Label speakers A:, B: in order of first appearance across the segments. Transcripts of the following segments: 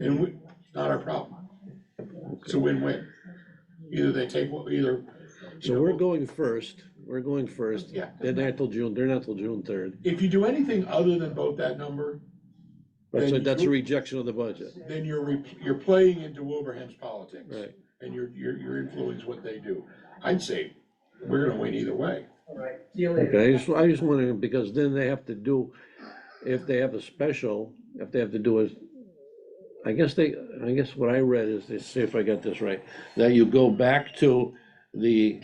A: and we, not our problem. It's a win-win. Either they take, what- either.
B: So we're going first, we're going first,
A: Yeah.
B: they're not till June, they're not till June third.
A: If you do anything other than vote that number,
B: That's, a-
A: Then
B: that's a
A: you-
B: rejection of the budget,
A: then you're, re- you're playing into Wilbraham's politics.
B: right?
A: And you're, you're, you're influencing what they do. I'd say, we're gonna win either way.
B: Okay, I just, I just wondering, because then they have to do, if they have a special, if they have to do is, I guess they, I guess what I read is, let's see if I got this right, that you go back to the,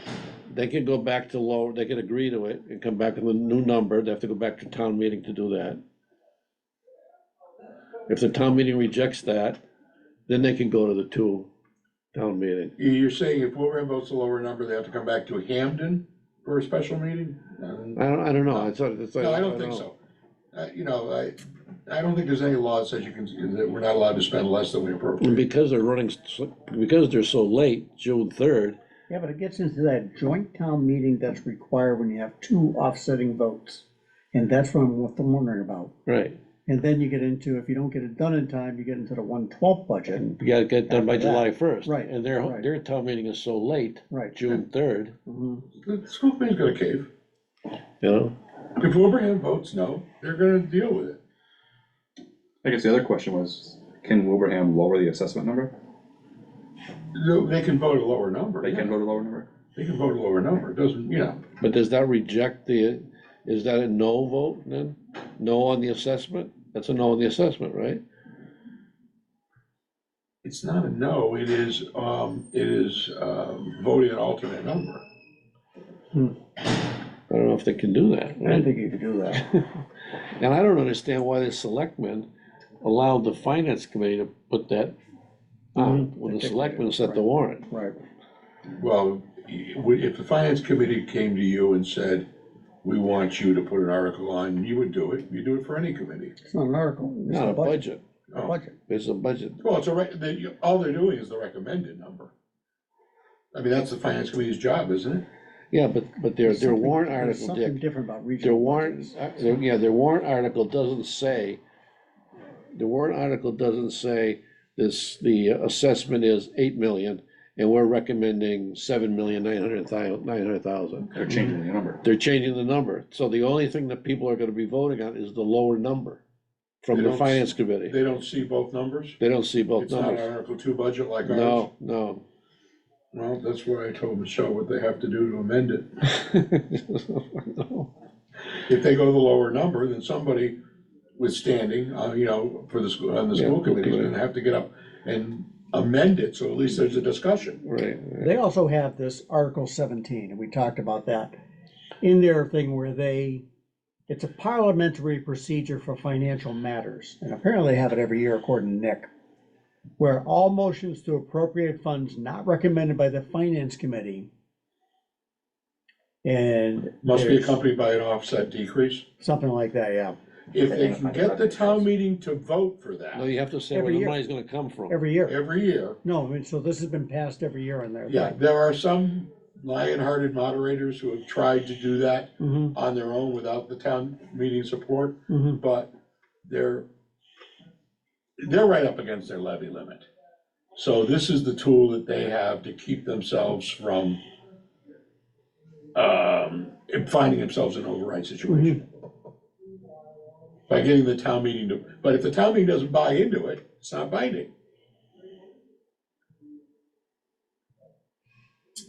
B: they can go back to lower, they can agree to it and come back with a new number, they have to go back to town meeting to do that. If the town meeting rejects that, then they can go to the two town meeting.
A: You- You're saying if Wilbraham votes a lower number, they have to come back to Hamden for a special meeting? Um,
B: I don't, I don't know, it's, it's.
A: No, I don't think so. Uh, you know, I, I don't think there's any law that says you can, that we're not allowed to spend less than we
B: And
A: appropriate.
B: because they're running, s- because they're so late, June third,
C: Yeah, but it gets into that joint town meeting that's required when you have two offsetting votes. And that's what I'm what I'm wondering about.
B: right,
C: And then you get into, if you don't get it done in time, you get into the one twelfth budget.
B: you gotta get done by
C: After that,
B: July first.
C: right,
B: And their,
C: right.
B: their town meeting is so late,
C: Right.
B: June third,
C: Mhm.
A: The school committee's gonna cave.
B: you know?
A: If Wilbraham votes no, they're gonna deal with it.
D: I guess the other question was, can Wilbraham lower the assessment number?
A: No, They can vote a lower number.
D: They can
A: yeah.
D: vote a lower number?
A: They can vote a lower number. It doesn't, you know,
B: But does that reject the, is that a no vote then? No on the assessment? That's a no on the assessment, right?
A: it's not a no, it is, um, it is, um, voting an alternate number.
B: I don't know if they can do that,
C: I don't
B: right?
C: think you could do that.
B: And I don't understand why the selectmen allowed the finance committee to put that on, when the
C: Particularly,
B: selectmen set the
C: right.
B: warrant.
C: Right.
A: Well, i- would- if the finance committee came to you and said, we want you to put an article on, you would do it. You do it for any committee.
C: It's not an article. It's
B: Not a budget,
A: Oh.
C: Budget.
B: it's a budget.
A: Well, it's a, rec- they, you- all they're doing is the recommended number. I mean, that's the finance committee's job, isn't it?
B: Yeah, but, but their,
C: There's
B: their
C: something-
B: warrant
C: there's
B: article,
C: Something
B: Dick,
C: different about
B: their
C: regional.
B: warrant,
C: budgets.
B: uh, their- yeah, their warrant article doesn't say, the warrant article doesn't say this, the assessment is eight million, and we're recommending seven million nine hundred thousand, nine hundred thousand.
D: They're changing the number.
B: They're changing the number, so the only thing that people are gonna be voting on is the lower number
A: They
B: from the
A: don't s-
B: finance committee.
A: They don't see both numbers?
B: They don't see both
A: It's not an
B: numbers.
A: Article Two budget like ours?
B: No, no.
A: Well, that's why I told Michelle what they have to do to amend it. If they go to the lower number, then somebody withstanding, uh, you know, for the school, on the
B: Yeah,
A: school committee, is
B: okay.
A: gonna have to get up and amend it, so at least there's a discussion.
B: Right,
C: They also have this Article seventeen, and we talked about that, in their thing where they, it's a parliamentary procedure for financial matters, and apparently they have it every year according to Nick, where all motions to appropriate funds not recommended by the Finance Committee and
A: Must be
C: there's
A: accompanied by an offset decrease.
C: something like that, yeah,
A: If they can get the town meeting to vote for
B: no,
A: that
B: you have to say where
C: Every
B: the
C: year.
B: money's gonna come from.
C: every year.
A: every year,
C: No, I mean, so this has been passed every year on there.
A: Yeah, there are some lion-hearted moderators who have tried to do that
C: Mm-hmm,
A: on their own without the town meeting support,
C: mm-hmm.
A: but they're, they're right up against their levy limit. So this is the tool that they have to keep themselves from, um, finding themselves in an override situation. By getting the town meeting to, but if the town meeting doesn't buy into it, it's not binding.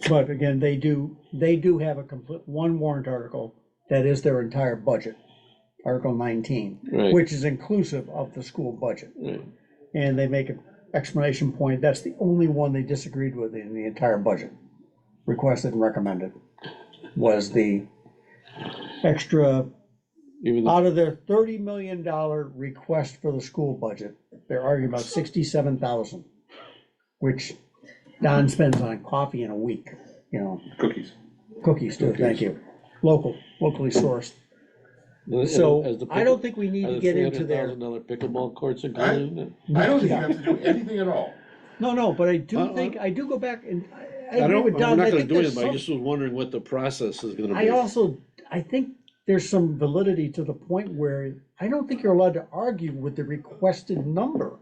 C: But again, they do, they do have a complete, one warrant article that is their entire budget, Article nineteen,
B: Right.
C: which is inclusive of the school budget.
B: Right.
C: And they make an explanation point, that's the only one they disagreed with in the entire budget. Requested and recommended was the extra,
B: Even though,
C: out of their thirty million dollar request for the school budget, they're arguing about sixty-seven thousand, which Don spends on coffee in a week, you know.
D: Cookies.
C: Cookies, too, thank you. Local, locally sourced.
B: as
C: So
B: the
C: I don't think we need
B: Are
C: to
B: the
C: get into
B: $300,000
C: there.
B: pickleball courts included in it?
A: I don't think you have to do anything at all.
C: No, no, but I do
B: Uh,
C: think, I do go back and I- I
B: I
C: agree
B: don't,
C: with
B: I'm
C: Don.
B: not
C: I
B: gonna
C: think
B: do
C: there's
B: it, but I
C: some,
B: just was wondering what the process is gonna
C: I
B: be.
C: also, I think there's some validity to the point where I don't think you're allowed to argue with the requested number.